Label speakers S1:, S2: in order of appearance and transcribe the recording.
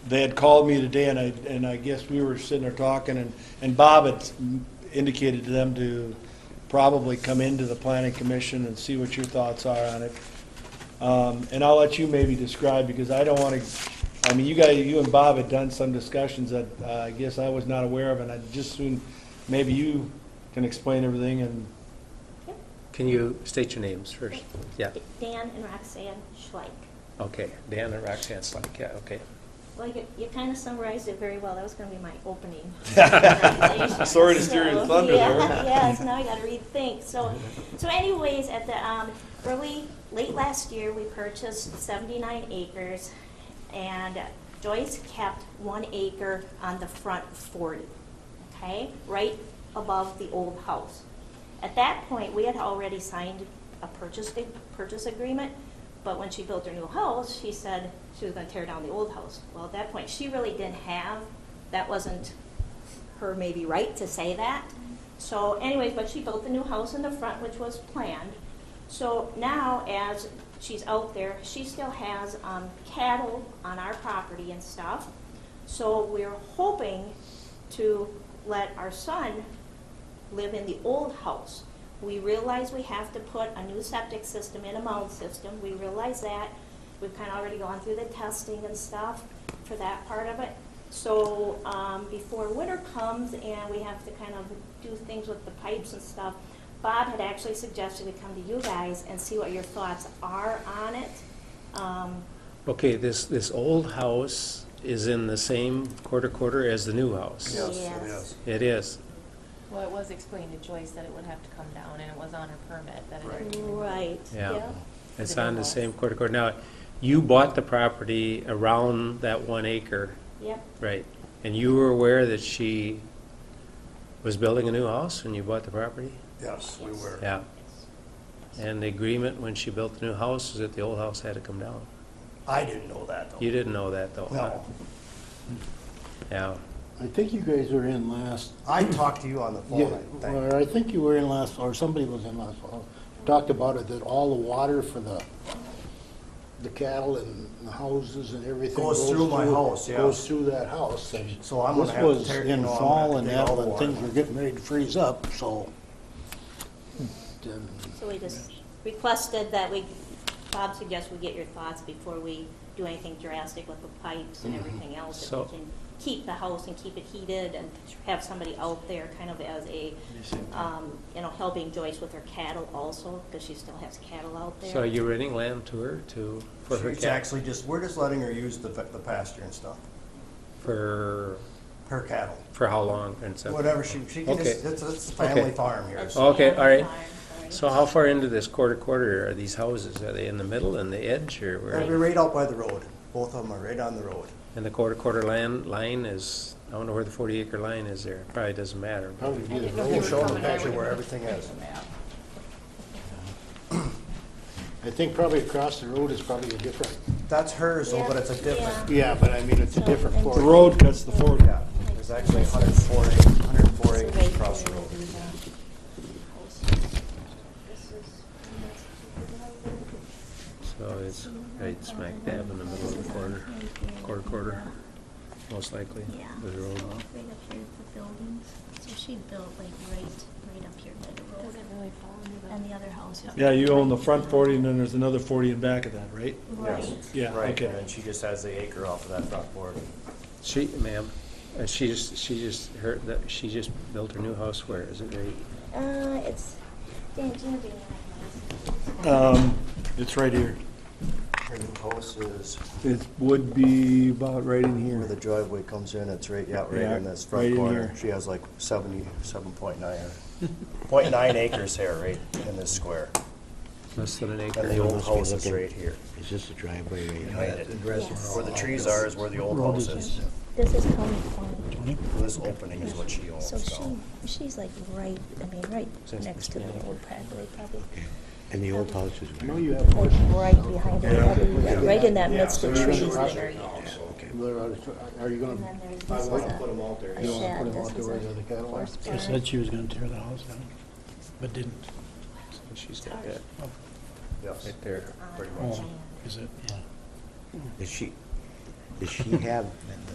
S1: They had called me today, and I, and I guess we were sitting there talking, and, and Bob had indicated to them to probably come into the planning commission and see what your thoughts are on it. Um, and I'll let you maybe describe, because I don't wanna, I mean, you guys, you and Bob had done some discussions that, uh, I guess I was not aware of, and I just soon, maybe you can explain everything and,
S2: Can you state your names first? Yeah,
S3: Dan and Roxanne Schleich.
S2: okay. Dan and Roxanne Slack, yeah, okay.
S3: Well, you, you kind of summarized it very well. That was going to be my opening.
S1: Sorry to steal your
S3: So,
S1: thunder
S3: yeah,
S1: there.
S3: Yes, now I gotta rethink. So, so anyways, at the, um, early, late last year, we purchased seventy-nine acres, and Joyce kept one acre on the front forty, okay? Right above the old house. At that point, we had already signed a purchase, ag- purchase agreement, but when she built her new house, she said she was gonna tear down the old house. Well, at that point, she really didn't have, that wasn't her maybe right to say that. So anyways, but she built the new house in the front, which was planned. So now, as she's out there, she still has um, cattle on our property and stuff. So we're hoping to let our son live in the old house. We realize we have to put a new septic system in a mound system, we realize that. We've kind of already gone through the testing and stuff for that part of it. So, um, before winter comes and we have to kind of do things with the pipes and stuff, Bob had actually suggested we come to you guys and see what your thoughts are on it. Um,
S2: Okay, this, this old house is in the same quarter quarter as the new house?
S4: Yes,
S3: Yes.
S4: it is.
S2: It is.
S5: Well, it was explained to Joyce that it would have to come down, and it was on her permit that it
S4: Right.
S5: had to come down.
S3: Right.
S2: Yeah. It's
S5: The new
S2: on the
S5: house.
S2: same quarter quarter. Now, you bought the property around that one acre,
S3: Yep,
S2: right? And you were aware that she was building a new house when you bought the property?
S4: Yes, we
S3: Yes.
S4: were.
S2: Yeah.
S3: yes.
S2: And the agreement when she built the new house is that the old house had to come down.
S4: I didn't know that, though.
S2: You didn't know that, though? huh?
S4: No.
S2: Yeah.
S6: I think you guys were in last,
S4: I talked to you on the
S6: yeah,
S4: phone, I think.
S6: or I think you were in last, or somebody was in last fall. Talked about it, that all the water for the, the cattle and the houses and everything.
S4: Goes through my house, yeah.
S6: Goes through that house. and
S4: So I'm gonna have to
S6: This
S4: tear-
S6: was
S4: you
S6: in
S4: know, I'm gonna
S6: fall and
S4: dig out
S6: that, when
S4: water.
S6: things were getting ready to freeze up, so. Then
S3: So we just requested that we, Bob suggests we get your thoughts before we do anything drastic with the pipes and everything else. If
S2: So-
S3: we can keep the house and keep it heated and have somebody out there kind of as a, um, you know, helping Joyce with her cattle also, because she still has cattle out there.
S2: So you're renting land to her to, for her
S4: She's
S2: cattle?
S4: actually just, we're just letting her use the fa- the pasture and stuff,
S2: For,
S4: her cattle,
S2: for how long and stuff?
S4: whatever she, she can
S2: Okay.
S4: just, it's, it's a
S2: Okay.
S4: family farm here.
S3: That's
S4: so-
S2: Okay,
S3: the
S2: all right.
S3: farm, sorry.
S2: So how far into this quarter quarter are these houses? Are they in the middle and the edge or
S4: They're
S2: where?
S4: right out by the road. Both of them are right on the road.
S2: And the quarter quarter land, line is, I don't know where the forty acre line is there. Probably doesn't matter.
S6: Probably
S5: I
S6: be
S5: didn't know
S6: the
S4: We'll
S5: they
S6: road.
S5: were
S4: show them the
S5: coming. I
S4: picture
S5: would've
S4: where everything
S5: taken
S4: is.
S5: the map.
S6: I think probably across the road is probably a different,
S4: That's hers, though, but
S3: Yeah,
S4: it's a different, Oh,
S6: yeah, but I mean, it's a
S3: So,
S6: different
S3: and-
S6: fork.
S1: the road cuts the forty.
S4: yeah. There's actually 104 acres, 104 acres across the road.
S3: This is-
S2: So it's right smack dab in the middle of the quarter, quarter quarter, most likely.
S7: Yeah,
S2: with the
S7: so
S2: road.
S7: right up here at the buildings, so she built like right, right up here by the road,
S5: Does it really fall under the?
S7: and the other house. is-
S1: Yeah, you own the front forty, and then there's another forty in back of that, right?
S7: Right.
S1: Yeah,
S4: Right,
S1: okay.
S4: and then she just has the acre off of that front board.
S2: She, ma'am, uh, she just, she just, her, that- she just built her new house where? Is it right?
S3: Uh, it's, Dan, do you want to do that?
S1: Um, it's right here.
S4: Her new house is
S1: It would be about right in
S4: where the driveway comes in, it's right, yeah, right
S1: Yeah,
S4: in this
S1: right
S4: front
S1: in
S4: corner.
S1: here.
S4: She has like seventy-seven point nine, point nine acres here, right in this square.
S2: Less than an
S4: And
S2: acre?
S4: the old
S8: must be
S4: house is
S8: looking-
S4: right here.
S8: Is this the driveway right here?
S4: behind it.
S3: Yes.
S4: Where the trees are is where the old house is.
S7: This is County Point,
S4: This opening is what she owns
S7: so
S4: now.
S7: she, she's like right, I mean, right
S2: Since
S7: next to the
S2: it's-
S7: old Pragley, probably, Um,
S8: And the old house is where?
S6: No, you have.
S7: or right behind it, right in that midst
S6: Yeah,
S7: of
S6: so you're
S7: trees
S6: right.
S7: there.
S6: Are you
S7: And
S6: gonna,
S7: then there's, this is a
S4: them out there.
S7: a
S6: you wanna
S7: shed,
S6: put them
S7: this
S6: out
S7: is
S6: there where the
S7: a
S6: other cattle are?
S7: horse
S8: She said
S7: barn.
S8: she was gonna tear the house down, but didn't.
S2: She's got that
S8: Oh,
S4: Yes.
S2: right there.
S3: Uh,
S4: Pretty much.
S3: Jan.
S8: Is it? Yeah. Is she,
S4: Does she have